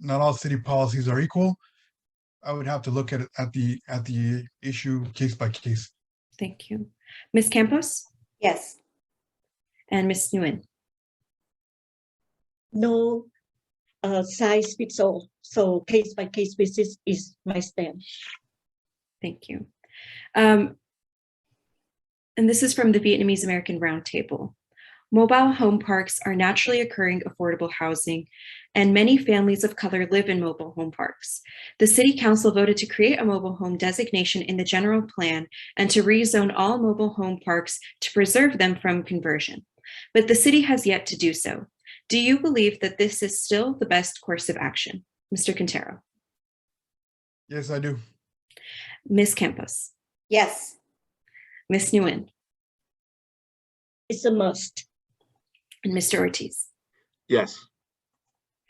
not all city policies are equal. I would have to look at, it- at the, at the issue case by case. Thank you. Ms. Campos Yes. and Ms. Nguyen. No uh, size fits all. So case by case basis is my stand. Thank you. Um, and this is from the Vietnamese American Roundtable. Mobile home parks are naturally occurring affordable housing, and many families of color live in mobile home parks. The City Council voted to create a mobile home designation in the general plan and to rezone all mobile home parks to preserve them from conversion. But the city has yet to do so. Do you believe that this is still the best course of action? Mr. Quintero, Yes, I do. Ms. Campos, Yes, Ms. Nguyen, It's a must. and Mr. Ortiz. yes,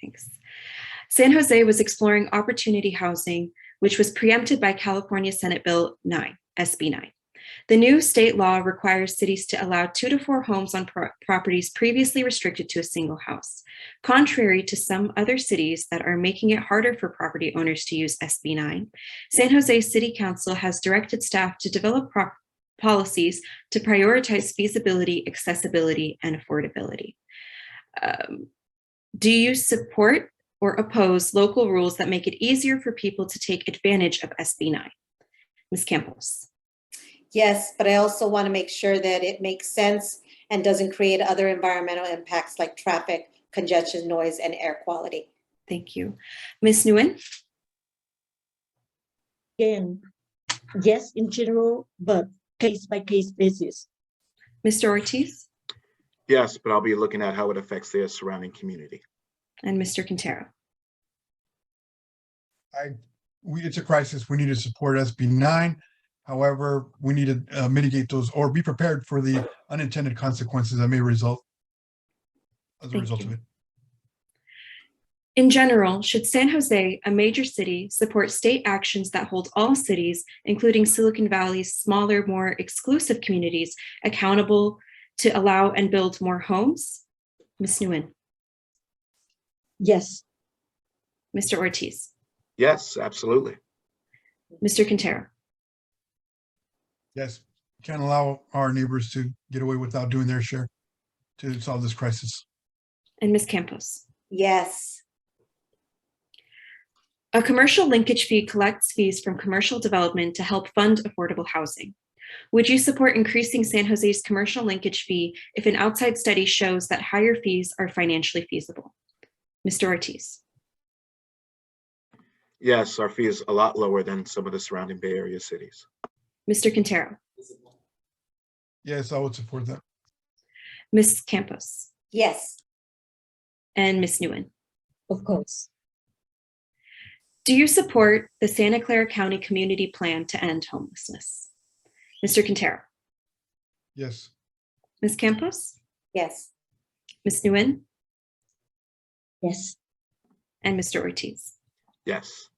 Thanks. San Jose was exploring opportunity housing, which was preempted by California Senate Bill 9, SB 9. The new state law requires cities to allow two to four homes on pro- properties previously restricted to a single house, contrary to some other cities that are making it harder for property owners to use SB 9. San Jose City Council has directed staff to develop prop- policies to prioritize feasibility, accessibility, and affordability. Um, do you support or oppose local rules that make it easier for people to take advantage of SB 9? Ms. Campos? yes, but I also want to make sure that it makes sense and doesn't create other environmental impacts like traffic, congestion, noise, and air quality. Thank you. Ms. Nguyen? Again, yes in general, but case by case basis. Mr. Ortiz? yes, but I'll be looking at how it affects their surrounding community. And Mr. Quintero? I, we, it's a crisis. We need to support SB nine. However, we need to uh, mitigate those or be prepared for the unintended consequences that may result as a Thank result you. of it. In general, should San Jose, a major city, support state actions that hold all cities, including Silicon Valley's smaller, more exclusive communities, accountable to allow and build more homes? Ms. Nguyen? Yes, Mr. Ortiz? Yes, absolutely. Mr. Quintero? Yes, can't allow our neighbors to get away without doing their share to solve this crisis. And Ms. Campos? Yes, A commercial linkage fee collects fees from commercial development to help fund affordable housing. Would you support increasing San Jose's commercial linkage fee if an outside study shows that higher fees are financially feasible? Mr. Ortiz, Yes, our fee is a lot lower than some of the surrounding Bay Area cities. Mr. Quintero, Yes, I would support that. Ms. Campos, yes, and Ms. Nguyen. of course. Do you support the Santa Clara County Community Plan to end homelessness? Mr. Quintero, Yes, Ms. Campos, yes, Ms. Nguyen, Yes, and Mr. Ortiz. Yes,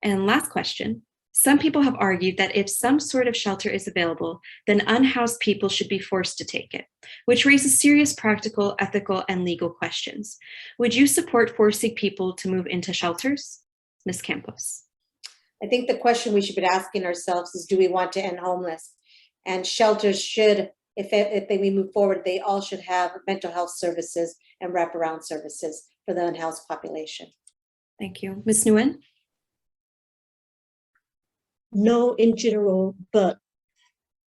And last question. Some people have argued that if some sort of shelter is available, then unhoused people should be forced to take it, which raises serious practical, ethical, and legal questions. Would you support forcing people to move into shelters? Ms. Campos. I think the question we should be asking ourselves is, do we want to end homeless? And shelters should, if, if they- we move forward, they all should have mental health services and wraparound services for the unhoused population. Thank you. Ms. Nguyen no in general, but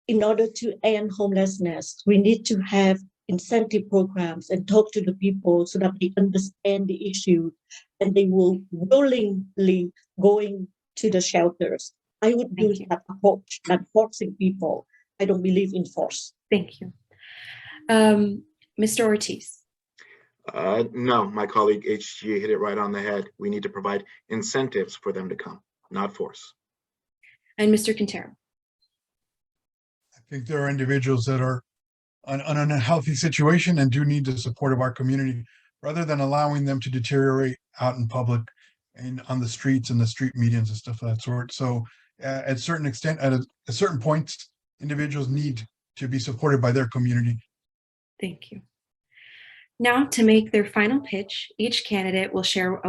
in order to end homelessness, we need to have incentive programs and talk to the people so that they understand the issue and they will willingly going to the shelters. I would Thank use you. that approach, not forcing people. I don't believe in force. thank you. Um, Mr. Ortiz uh, no, my colleague HG hit it right on the head. We need to provide incentives for them to come, not force. and Mr. Quintero. I think there are individuals that are on on an unhealthy situation and do need the support of our community rather than allowing them to deteriorate out in public and on the streets and the street medians and stuff of that sort. So uh, at certain extent, at a, a certain point, individuals need to be supported by their community. Thank you. Now, to make their final pitch, each candidate will share a